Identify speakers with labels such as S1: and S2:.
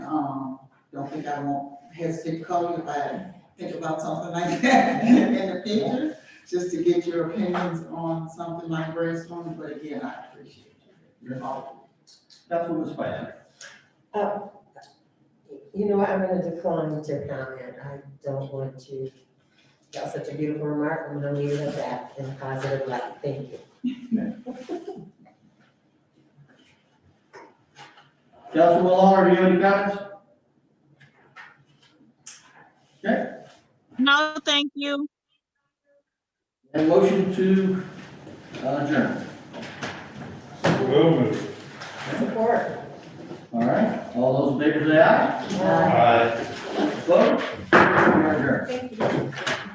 S1: Um, don't think I won't hesitate to call you if I think about something like that in the future, just to get your opinions on something like brainstorming, but again, I appreciate you.
S2: Councilwoman Spicer.
S3: You know what, I'm gonna decline to comment, I don't want to, got such a beautiful remark, I'm gonna leave it at that in a positive light, thank you.
S2: Councilwoman Lawler, do you have any comments? Okay,
S4: No, thank you.
S2: and motion to uh, adjourn.
S5: Movement.
S3: Support.
S2: All right, all those in favor say aye.
S3: Aye.
S5: Aye.
S2: Vote. We are adjourned.